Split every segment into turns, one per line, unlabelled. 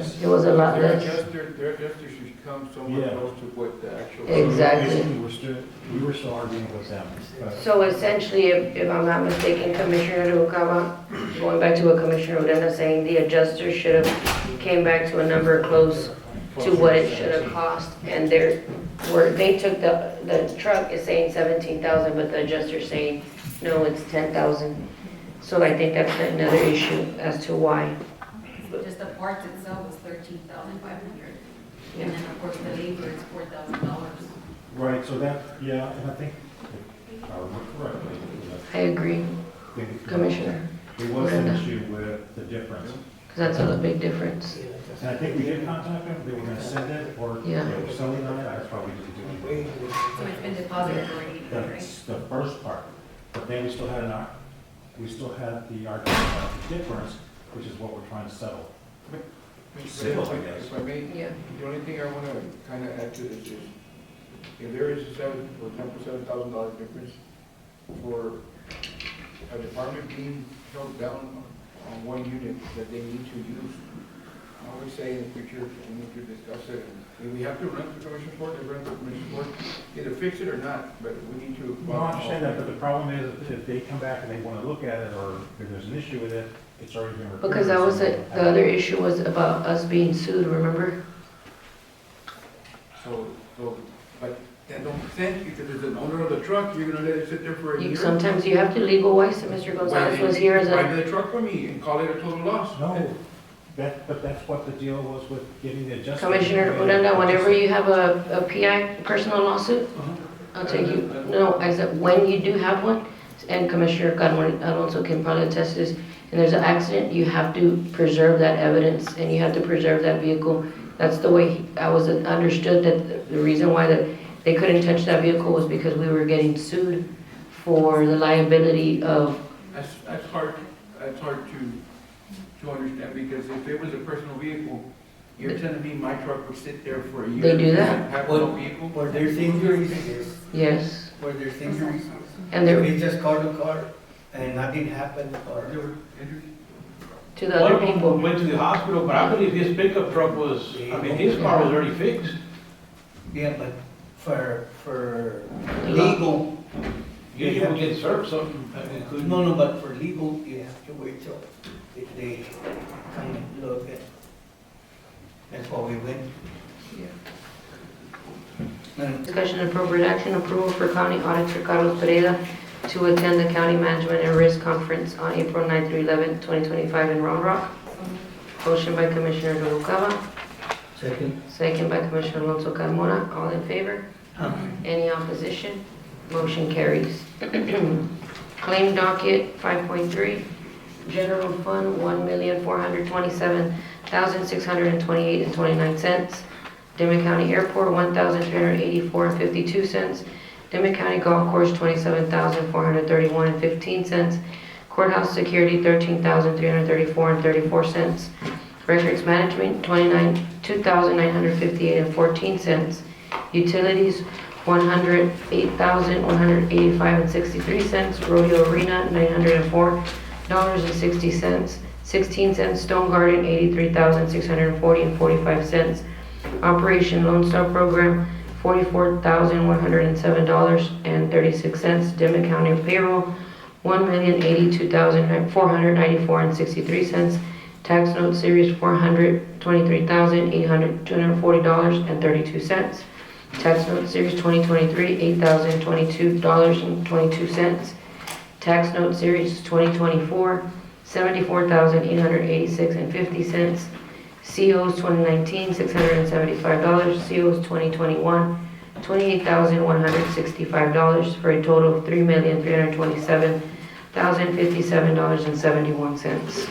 It was a lot
Their
less.
adjuster, their adjuster should come somewhere
Yeah.
close to what the actual.
Exactly.
Basically, we're still, we were still arguing with them, but
So essentially, if, if I'm not mistaken, Commissioner Noguera, going back to what Commissioner Odena saying, the adjuster should have came back to a number close to what it should have cost, and they're, where, they took the, the truck is saying seventeen thousand, but the adjuster's saying, no, it's ten thousand. So I think that's another issue as to why.
Just the parts itself is thirteen thousand five hundred, and then of course the labor is four thousand dollars.
Right, so that, yeah, and I think, if I remember correctly,
I agree,
I think it-
Commissioner,
There was an issue with the difference.
because that's a big difference.
And I think we did contact them, they were gonna send it, or they
Yeah.
were selling on it, that's why we didn't do it.
So it's been deposited already, right?
That's the first part, but then we still had an, ar- we still had the argument about the difference, which is what we're trying to settle. Simple, I guess.
If I may,
Yeah.
the only thing I want to kind of add to this is, if there is a seven, or ten percent, seven thousand dollar difference for a department being held down on one unit that they need to use, I would say in the future, we need to discuss it. If we have to rent the commission board, then rent the commission board, either fix it or not, but we need to.
Well, I understand that, but the problem is, if they come back and they wanna look at it, or if there's an issue with it, it's already been recorded.
Because that was,
so-
it. the other issue was about us being sued, remember?
So, so, but that don't sense, because as an owner of the truck, you're gonna let it sit there for a
You-
year?
Sometimes you have to legalize, and Mr. Gonzalez was here as
Buy
a,
the truck for me and call it a total loss.
No, that, but that's what the deal was with getting the adjustment.
Commissioner Odena, whenever you have a, a PI, personal lawsuit, I'll take you, no, I said, when you do have one, and Commissioner Carmen Alonso can probably attest to this, and there's an accident, you have to preserve that evidence, and you have to preserve that vehicle. That's the way he- I was understood, that the reason why that they couldn't touch that vehicle was because we were getting sued for the liability of,
That's, that's hard, that's hard to, to understand, because if it was a personal vehicle, you're telling me my truck would sit there for a year?
They do that.
Have no vehicle?
Where there's injuries, yes,
yes,
where there's injuries.
and there,
They just called the car and nothing happened or.
There were injuries?
to the
One
other
of
people.
them went to the hospital, but I believe his pickup truck was, I mean, his car was already fixed.
Yeah, but for, for
Law.
legal,
You will get uh, served something, I mean, couldn't-
no, no, but for legal, you have to wait till they- they come and look at. That's why we went. And
Discussion and appropriate action, approval for county auditor Carlos Pereira to attend the county management and risk conference on April 9 through 11, 2025 in Round Rock. Motion by Commissioner Noguera,
second,
second by Commissioner Alonso Carmona. All in favor? Any opposition? Motion carries. Claim docket 5.3, general fund $1,427,628.29. Demet County Airport, $1,384.52. Demet County Golf Course, $27,431.15. Courthouse Security, $13,334.34. Records Management, 29 $2,958.14. Utilities, $108,185.63. Rodeo Arena, $904.60. 16 cents Stone Garden, $83,640.45. Operation Lone Star Program, forty-four thousand one hundred and seven dollars and thirty-six cents. Demet County payroll, one million eighty-two thousand four hundred ninety-four and sixty-three cents. Tax note series, four hundred twenty-three thousand eight hundred two hundred forty dollars and thirty-two cents. Tax note series twenty twenty-three, eight thousand twenty-two dollars and twenty-two cents. Tax note series twenty twenty-four, seventy-four thousand eight hundred eighty-six and fifty cents. COs 2019, $675. COs 2021, $28,165 for a total of $3,327,057.71.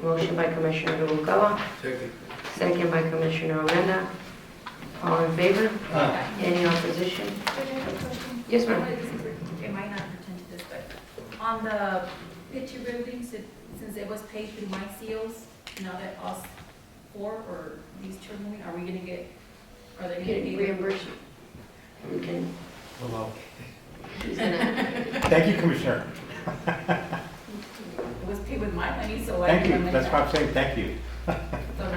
Motion by Commissioner Noguera,
Second.
second by Commissioner Odena. All in favor?
uh,
Any opposition? Yes, ma'am.
It might not pertain to this, but on the picture buildings, it- since it was paid through my seals, now that us four or these children, are we gonna get, are they gonna
Getting
be?
reimbursed? We can,
Hello.
he's gonna,
Thank you, Commissioner.
It was paid with my money, so I.
Thank you, that's why I'm saying thank you.